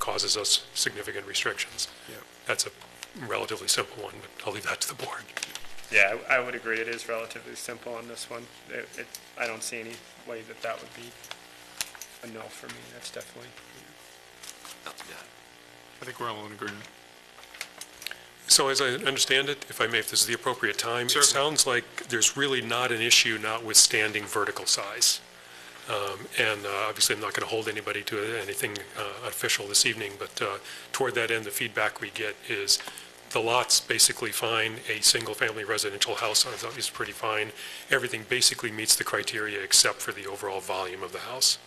causes us significant restrictions. Yeah. That's a relatively simple one, but I'll leave that to the board. Yeah, I I would agree, it is relatively simple on this one. It, it, I don't see any way that that would be a no for me, that's definitely. I think we're all in agreement. So as I understand it, if I may, if this is the appropriate time, it Certainly. sounds like there's really not an issue notwithstanding vertical size. Um, And uh, obviously, I'm not going to hold anybody to anything uh, official this evening, but uh, toward that end, the feedback we get is the lot's basically fine, a single-family residential house is- is pretty fine, everything basically meets the criteria except for the overall volume of the house.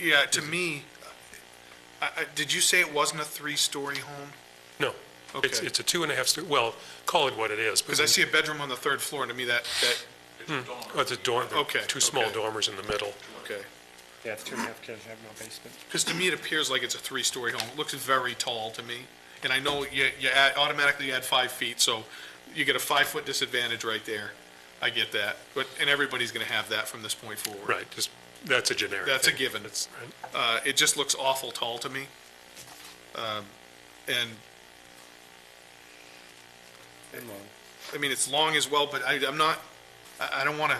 Yeah, to me, I, I, did you say it wasn't a three-story home? No. It's Okay. it's a two and a half, sto- well, call it what it is. but Because I see a bedroom on the third floor, and to me, that, that, Oh, It's a dorm, there are Okay, two small okay. dormers in the middle. okay. Yeah, it's two and a half kids, I have no basement. Because to me, it appears like it's a three-story home. It looks very tall to me. And I know you, you add, automatically add five feet, so you get a five-foot disadvantage right there. I get that. But, and everybody's going to have that from this point forward. Right, just, that's a generic. That's a thing. given. That's- right. Uh, it just looks awful tall to me. Um, And, And long. I mean, it's long as well, but I, I'm not, I, I don't want to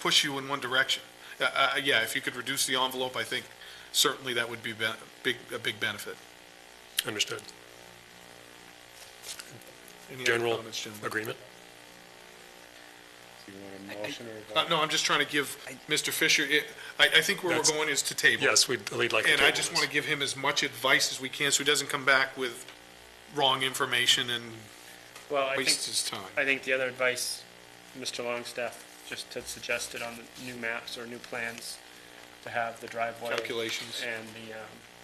push you in one direction. Uh, uh, yeah, if you could reduce the envelope, I think certainly that would be ben, big, a big benefit. Understood. Any other General comments, gentlemen? agreement? Do you want a motion or? Uh, no, I'm just trying to give Mr. Fisher, it, I, I think where we're That's- going is to table. Yes, we'd we'd like to And I table just this. want to give him as much advice as we can, so he doesn't come back with wrong information and Well, I waste think, his time. I think the other advice Mr. Longstaff just had suggested on the new maps or new plans to have the driveway. Calculations. And the, um,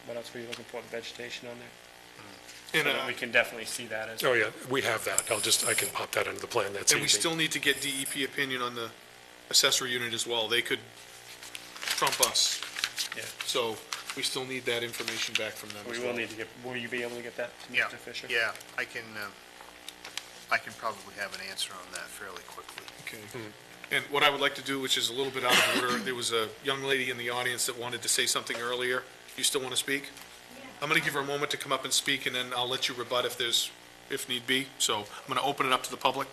what else were you looking for, vegetation on there? And, So that uh, we can definitely see that as. Oh, yeah, we have that. I'll just, I can pop that under the plan, that's easy. and we still need to get DEP opinion on the accessory unit as well. They could trump us. Yeah. So we still need that information back from them We as will well. need to get, will you be able to get that to Yeah, Mr. Fisher? yeah, I can, uh, I can probably have an answer on that fairly quickly. Okay. And what I would like to do, which is a little bit out of order, there was a young lady in the audience that wanted to say something earlier. You still want to speak? I'm going to give her a moment to come up and speak, and then I'll let you rebut if there's, if need be. So I'm going to open it up to the public.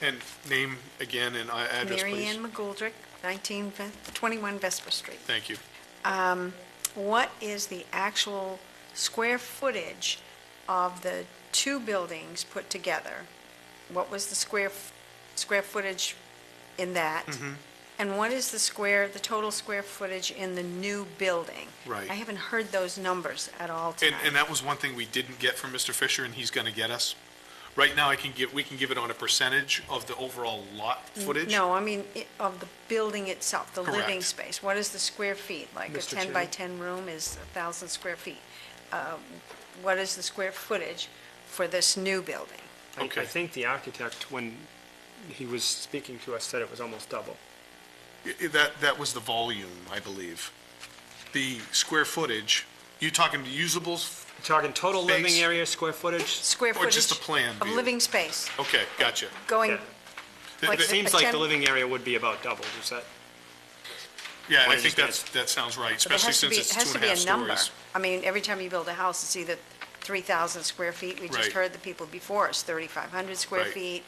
And name again and uh, address, Mary please. Ann McGoldrick, 19, Ves- 21 Vesper Street. Thank you. What is the actual square footage of the two buildings put together? What was the square, f- square footage in that? Mm-hmm. And what is the square, the total square footage in the new building? Right. I haven't heard those numbers at all And, tonight. and that was one thing we didn't get from Mr. Fisher, and he's going to get us. Right now, I can give, we can give it on a percentage of the overall lot footage. Mm, No, I mean, i- of the building itself, the living Correct. space. What is the square feet? Like a Mr. 10 by 10 room is 1,000 square feet. Um, What is the square footage for this new building? I- Okay. I think the architect, when he was speaking to us, said it was almost double. I- I- That, that was the volume, I believe. The square footage, you talking usables? We're Talking total living Space. area, square footage, Square Or footage? just the plan Of view? living space, Okay, gotcha. going, Yeah. Th- Like it th- say- seems like the Ten- living area would be about double, is that? Yeah, what I you think that's, just that sounds right, but there especially since has to be, it's it has two to and be a half a number. stories. I mean, every time you build a house, it's either 3,000 square feet. We just Right. heard the people before us, 3,500 square Right. feet,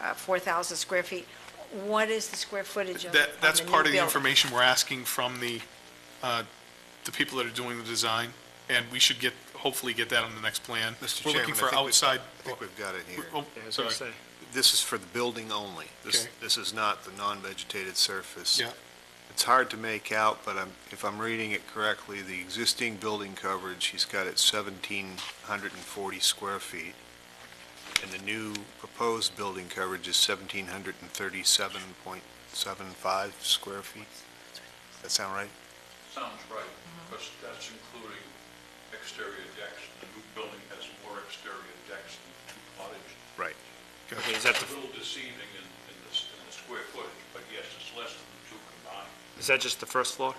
uh, 4,000 square feet. What is the square footage of of the new That, that's part of the building? information we're asking from the, uh, the people that are doing the design, and we should get, hopefully get that on the next plan. Mr. We're looking Chairman, I for think we- outside. I think we've got it here. Oh, Yeah, as I sorry. say. This is for the building only. This, Okay. this is not the non-vegetated surface. Yeah. It's hard to make out, but I'm, if I'm reading it correctly, the existing building coverage, he's got it seventeen hundred and forty square feet. And the new proposed building coverage is seventeen hundred and thirty-seven point seven five square feet. Does that sound right? Sounds right, because that's including exterior decks. The new building has more exterior decks than the two cottage. Right. Okay, is that, It's a the- little deceiving in, in the, s- in the square footage, but yes, it's less than the two combined. is that just the first floor?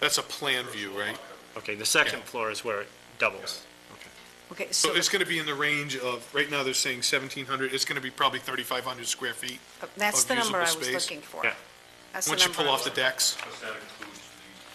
That's a plan view, right? Okay, the second Yeah. floor is where it doubles. Okay, so So it's going to be in the range of, right now they're saying 1,700, it's going to be probably 3,500 square feet. That's of the number I usable was space. looking for. Yeah. That's the Once you number pull I off the was- decks, But that includes